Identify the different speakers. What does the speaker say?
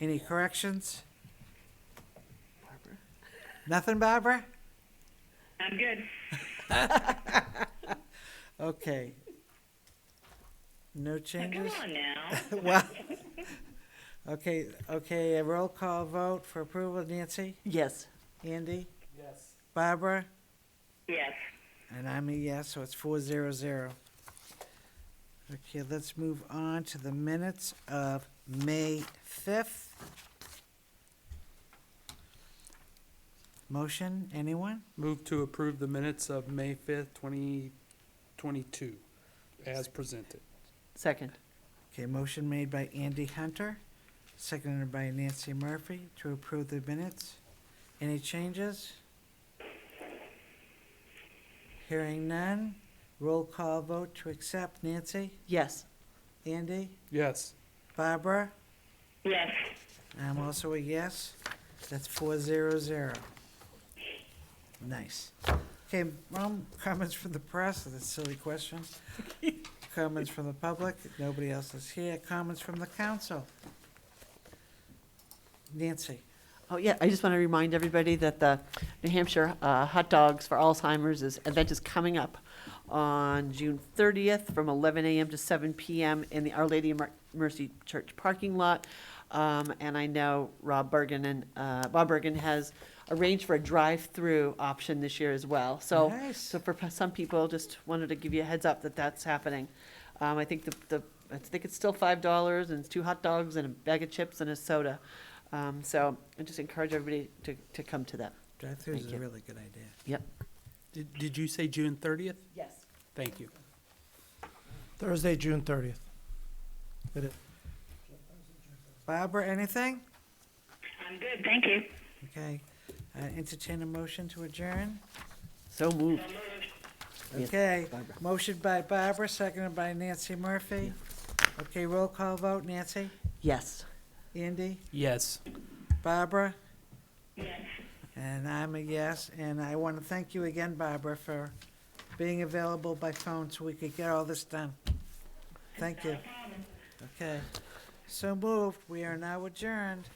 Speaker 1: Any corrections? Nothing, Barbara?
Speaker 2: I'm good.
Speaker 1: Okay. No
Speaker 2: Now, Come
Speaker 1: changes?
Speaker 2: on now.
Speaker 1: Well, okay, okay, a roll call vote for approval, Nancy,
Speaker 3: Yes.
Speaker 1: Andy? Yes. Barbara?
Speaker 2: Yes.
Speaker 1: And I'm a yes, so it's four zero zero. Okay, let's move on to the minutes of May fifth. Motion, anyone?
Speaker 4: Move to approve the minutes of May fifth, twenty twenty-two, as presented.
Speaker 3: Second.
Speaker 1: Okay, motion made by Andy Hunter, seconded by Nancy Murphy to approve the minutes. Any changes? Hearing none, roll call vote to accept Nancy,
Speaker 3: Yes.
Speaker 1: Andy,
Speaker 4: Yes,
Speaker 1: Barbara?
Speaker 2: Yes.
Speaker 1: I'm also a yes. That's four zero zero. Nice. Okay, um, comments from the press, that's a silly question. Comments from the public, nobody else is here. Comments from the council. Nancy,
Speaker 3: Oh, yeah, I just want to remind everybody that the New Hampshire uh, Hot Dogs for Alzheimer's is, event is coming up on June 30th from 11 a.m. to 7 p.m. in the Our Lady of Mer- Mercy Church parking lot. Um, And I know Rob Bergen and, uh, Bob Bergen has arranged for a drive-through option this year as well. So,
Speaker 1: Nice.
Speaker 3: so for p- some people, just wanted to give you a heads up that that's happening. Um, I think the, the, I think it's still five dollars and it's two hot dogs and a bag of chips and a soda. Um, so I just encourage everybody to, to come to that.
Speaker 1: drive-throughs is
Speaker 3: Thank
Speaker 1: a
Speaker 3: you.
Speaker 1: really good idea.
Speaker 3: Yep.
Speaker 4: did, did you say June thirtieth?
Speaker 3: Yes.
Speaker 4: Thank you.
Speaker 5: Thursday, June thirtieth. Did it.
Speaker 1: Barbara, anything?
Speaker 2: I'm good. Thank you.
Speaker 1: Okay, uh, entertain a motion to adjourn?
Speaker 3: So moved. Yes,
Speaker 1: Okay,
Speaker 3: Barbara.
Speaker 1: motion by Barbara, seconded by Nancy Murphy. Okay, roll call vote, Nancy,
Speaker 3: Yes.
Speaker 1: Andy,
Speaker 4: Yes.
Speaker 1: Barbara?
Speaker 2: Yes.
Speaker 1: And I'm a yes, and I want to thank you again, Barbara, for being available by phone so we could get all this done. Thank you. Okay, so moved, we are now adjourned.